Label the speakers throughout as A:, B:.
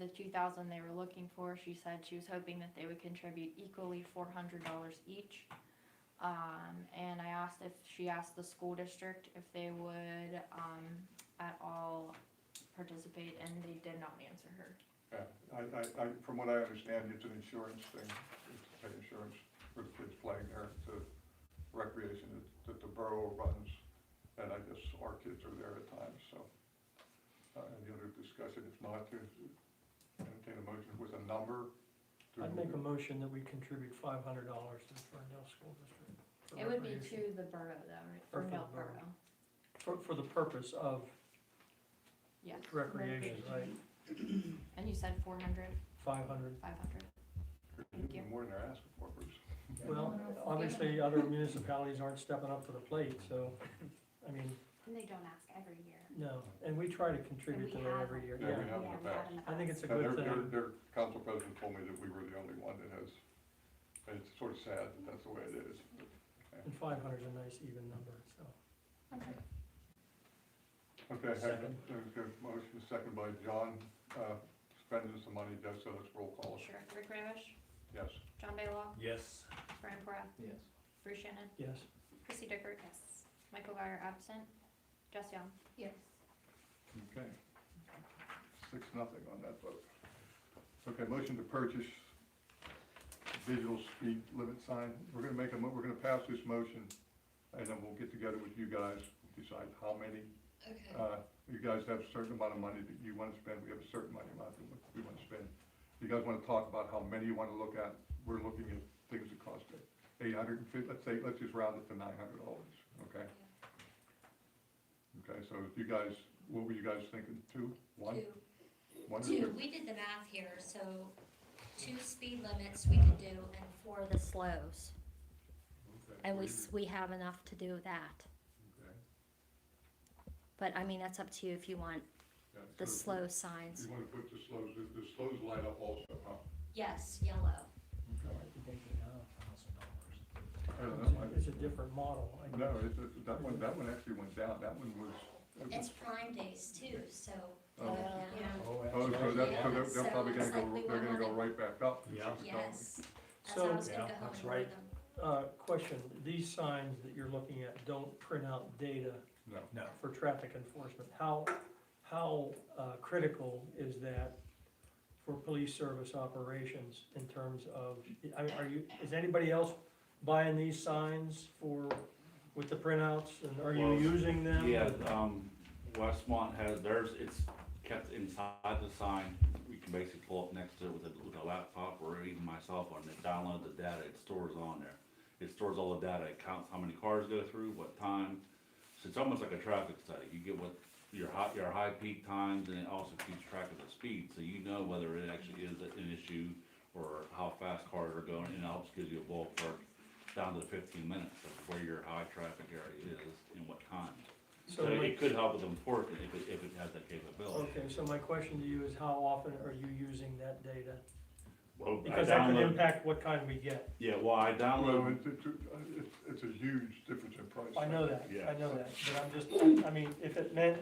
A: the two thousand they were looking for, she said she was hoping that they would contribute equally four hundred dollars each. Um, and I asked if, she asked the school district if they would, um, at all participate, and they did not answer her.
B: Yeah, I, I, I, from what I understand, it's an insurance thing, it's to take insurance for the kids playing there, to recreation that- that the borough runs, and I guess our kids are there at times, so. Uh, any other discussion, if not, to entertain a motion with a number? to-
C: I'd make a motion that we contribute five hundred dollars to the Ferndale School District. for
A: It would be
C: recreation.
A: to the borough though, right, for
C: Or for the
A: Bell
C: borough.
A: Borough,
C: For, for the purpose of
A: yes.
C: recreation, right,
A: And you said four hundred,
C: five hundred.
A: five hundred?
B: Give them More than they're asking for, Bruce.
C: Well, obviously, other municipalities aren't stepping up to the plate, so, I mean,
D: And they don't ask every year.
C: no, and we try to contribute to that every year,
B: Yeah, we
C: yeah.
B: have in the
D: we have
B: past.
D: in the
C: I think
D: past.
C: it's a
B: And their,
C: good
B: their,
C: thing,
B: their council president told me that we were the only one that has, and it's sort of sad that that's the way it is.
C: and five hundred's a nice even number, so.
B: Okay, I have
C: Second.
B: a a motion, second by John, uh, spending some money, just so let's roll call,
A: Sure, Rick Ramish,
B: yes.
A: John Baylock,
E: Yes.
A: Brian Porath,
E: Yes.
A: Bruce Shannon,
C: Yes,
A: Chrissy Dickert,
D: Yes.
A: Michael Guyer absent, Jess Young.
D: Yes.
B: Okay. Six, nothing on that vote. Okay, motion to purchase digital speed limit sign, we're gonna make a, mo- we're gonna pass this motion, and then we'll get together with you guys, decide how many. Uh, you guys have a certain amount of money that you wanna spend, we have a certain money amount that we wanna spend. You guys wanna talk about how many you wanna look at, we're looking at things that cost eight hundred and fifty, let's say, let's just round it to nine hundred dollars, okay? Okay, so if you guys, what were you guys thinking, two, one? One or
D: Two,
B: two?
D: we did the math here, so two speed limits we could do and four the slows. And we, s- we have enough to do that.
B: Okay,
D: But I mean, that's up to you if you want
B: yeah,
D: the
B: so
D: slow signs.
B: You wanna put the slows, the the slows light up also, huh?
D: Yes, yellow.
B: I don't
C: It's
B: know,
C: a-
B: I-
C: it's a different model, I
B: No,
C: guess.
B: it's, it's- Uh, that one, that one actually went down, that one was. that
D: It's
B: was-
D: prime days too, so, you
B: Oh.
D: know,
B: Oh, so that, so
D: Yeah,
B: they're,
D: so
B: they're probably gonna
D: it's
B: go,
D: like we
B: they're gonna
D: went
B: go
D: on
B: right back up.
E: Yeah.
D: yes. That's how I
C: So,
D: was gonna
E: Yeah,
D: go home
E: that's
D: and order
E: right.
D: them.
C: uh, question, these signs that you're looking at don't print out data
B: No,
E: No.
C: for traffic enforcement, how, how uh, critical is that for police service operations in terms of, I mean, are you, is anybody else buying these signs for, with the printouts, and are you
F: Well,
C: using them?
F: Yeah, um, Westmont has theirs, it's kept inside the sign. You can basically pull up next to it with a, with a laptop or even my cell phone and download the data, it stores on there. It stores all the data, it counts how many cars go through, what time. So it's almost like a traffic study. You get what your high, your high peak times and it also keeps track of the speed. So you know whether it actually is an issue or how fast cars are going and it helps gives you a ballpark down to fifteen minutes of where your high traffic area is and what times.
C: So
F: So
C: my,
F: it could help with enforcement if it, if it has that capability.
C: okay, so my question to you is how often are you using that data?
F: Well, I
C: Because that could
F: download-
C: impact what kind we get,
F: Yeah, well, um, I
B: well,
F: downloaded,
B: it's, it's, it's, it's a huge difference in price.
C: I know that,
F: Yeah.
C: I know that, but I'm just, I mean, if it meant,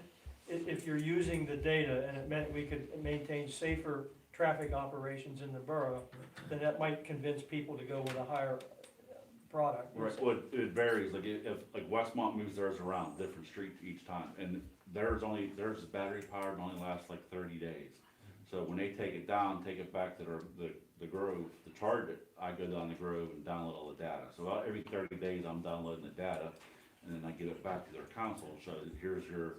C: if, if you're using the data and it meant we could maintain safer traffic operations in the borough, then that might convince people to go with a higher product.
F: right, well, it- it varies, like, if, if- like Westmont moves theirs around, different streets each time, and theirs only, theirs is battery powered and only lasts like thirty days. So when they take it down, take it back to their, the, the Grove, to charge it, I go down the Grove and download all the data. So about every thirty days, I'm downloading the data, and then I get it back to their council, so here's your,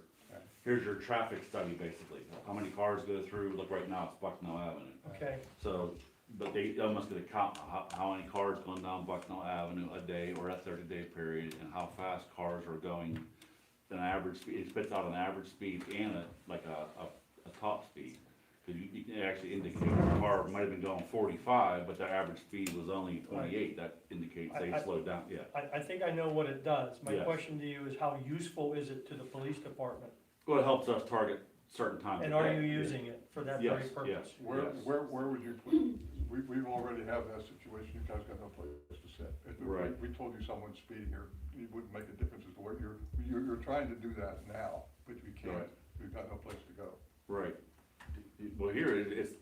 F: here's your traffic study, basically. How many cars go through, look, right now, it's Bucknell Avenue.
C: Okay,
F: So, but they almost gonna count how, how many cars going down Bucknell Avenue a day or a thirty day period and how fast cars are going. An average, speed. it spits out an average speed and a, like a, a, a top speed. Cause you, you can actually indicate the car might have been going forty-five, but their average speed was only twenty-eight, that indicates they
C: I- I-
F: slowed down, yeah.
C: I, I think I know what it does, my
F: Yes.
C: question to you is how useful is it to the police department?
F: Well, it helps us target certain times.
C: And
F: of
C: are
F: day.
C: you using it for that very
F: Yes,
C: purpose?
F: yes.
B: Where, where, where would you put, we, we already have that situation, you guys got no place to sit. If we-
F: Right.
B: We told you someone's speeding here, it wouldn't make a difference as to what you're, you're, you're trying to do that now, but you can't,
F: Right.
B: you've got no place to go.
F: Right. Well, here, it- it's,